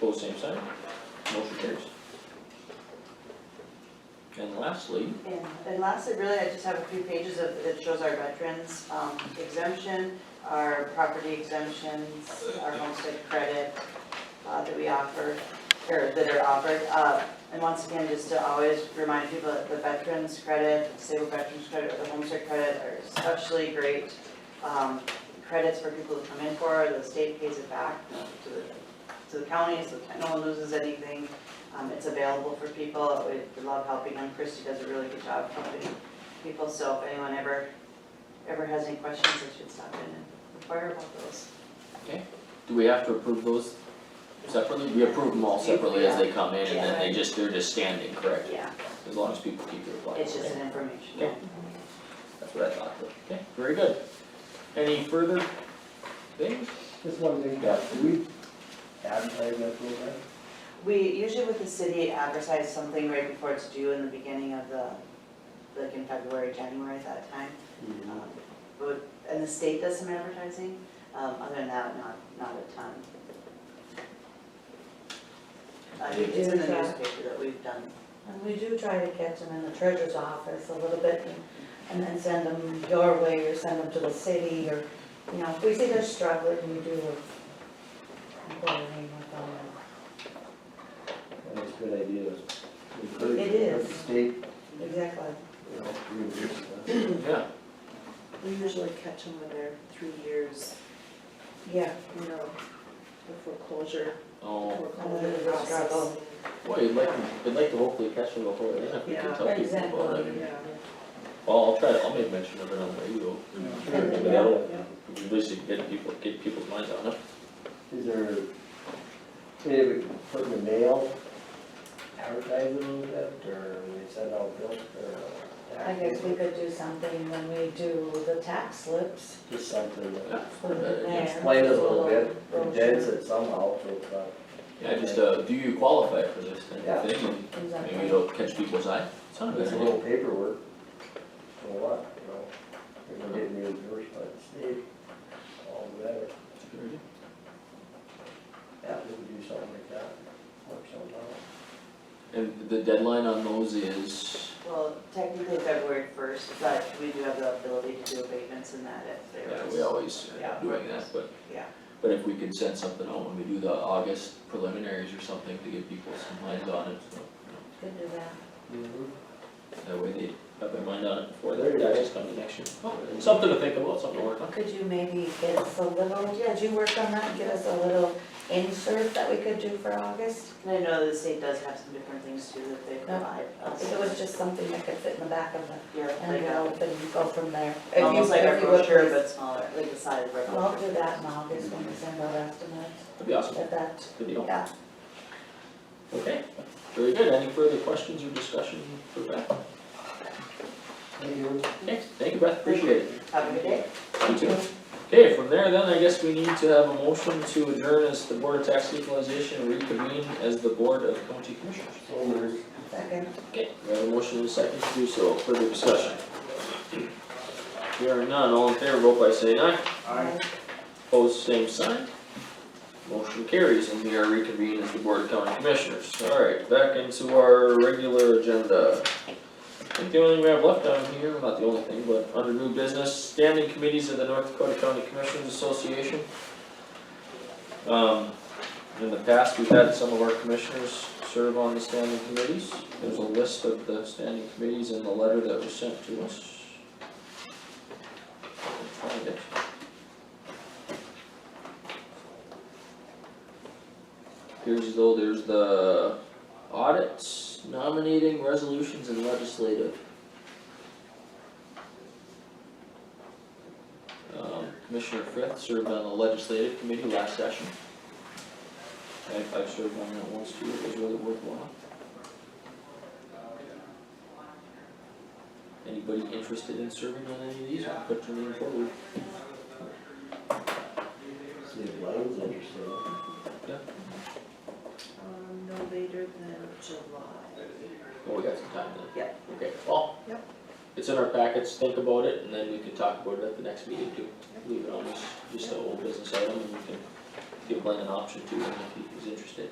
Pose same sign, motion carries. And lastly, And, and lastly, really, I just have a few pages of, that shows our veterans um, exemption, our property exemptions, our homestead credit uh, that we offer, or that are offered. Uh, And once again, just to always remind people that the veterans credit, disabled veterans credit, or the homestead credit are especially great um, credits for people to come in for, the state pays it back you know, to the, to the county, so no one loses anything. Um, it's available for people, we we love helping them, Christy does a really good job helping people, so if anyone ever, ever has any questions, they should stop in and inquire about those. do we have to approve those separately? We approve them all separately as they come in and then they just, they're just standing, correct? Yeah, As long as people keep their flag. it's just okay? an information. Okay. That's what I thought, but, okay, very good. Any further things? Just one thing, Yeah. do we advertise that program? We, usually with the city advertise something right before it's due in the beginning of the, like in February, January at that time. Um, But, and the state does some advertising, um, other than that, not, not a ton. Uh, We it's in do the that. newspaper that we've done And we do try to catch them in the treasurer's office a little bit and- and then send them your way or send them to the city or, you know, if we see they're struggling, we do a coordinate with them. That's a good idea, is encourage It the is. state, Exactly. you know, reimburse us. Yeah, We usually catch them when they're three years, Yeah, you know, the foreclosure, oh, foreclosure Oh, that's process. struggle. boy, I'd like, to- I'd like to hopefully catch them before then, if we can Yeah. tell people about it. Exactly. Yeah. Well, I'll try to, I'll make mention of it on the radio. Sure. Maybe that'll, at least it can get people, get people's minds on it. Is there, maybe we can put in the mail, advertise it a little bit, or we send out bills, or. uh, I guess we could do something when we do the tax slips. Just something that Yeah, Put it in there. explain it a little bit, Brochure. condense it somehow, so it's not Yeah, just, uh, do you qualify for this kind Yeah. of thing, and maybe Exactly. it'll catch people's eye, sounds It's a good, little paperwork, for what, you know, if we're getting reimbursed by the state, all the better. Yeah, we could do something like that, work something out. and the deadline on those is, Well, technically February first, but we do have the ability to do abatements in that if there yeah, is. we always end Yeah. up doing that, but. Yeah. But if we can send something out when we do the August preliminaries or something to get people some minds on it, so, you Could do that. Mm-hmm. know, that way they have their mind on it before There the you taxes come to next year. Oh, Something to think about, something to work on. Could you maybe get us a little, yeah, did you work on that? Get us a little insert that we could do for August? And I know the state does have some different things too that they provide I us. think it was just something that could fit in the back of the Yeah, like a- envelope and go from there. If you- almost like our if you would, brochure, please. but smaller, like the size of our brochure. I'll do that in August when we send our estimates, That'd be awesome, at that, good deal. yeah. Okay, very good, any further questions or discussion for Beth? Thank you. Okay, thank you Beth, appreciate it. Have a good day. You too. Okay, from there then, I guess we need to have a motion to adjourn as the Board of Tax Equalization reconvene as the Board of County Commissioners. So there's Second. Okay, we have a motion and a second to do so, further discussion. Here are none, all in favor, vote by saying aye, Aye. opposed, same sign. Motion carries and we are reconvened as the Board of County Commissioners. Alright, back into our regular agenda. I think the only thing we have left on here, not the only thing, but under new business, standing committees of the North Dakota County Commissioners Association. Um, in the past, we've had some of our commissioners serve on the standing committees. There's a list of the standing committees in the letter that was sent to us. I'll Find it. Appears as though there's the audits, nominating, resolutions, and legislative. Um, Commissioner Frith served on the legislative committee last session. I, I served on that once too, it was really worthwhile. Anybody interested in serving on any of these, put your name forward. state lines, interesting. Um, no later than July. Well, we got some time then. Yeah. Okay, well. Yep. It's in our packets, think about it, and then we can talk about it at the next meeting too. Leave it on as just an old business item, and we can give Glenn an option too, and if he's interested.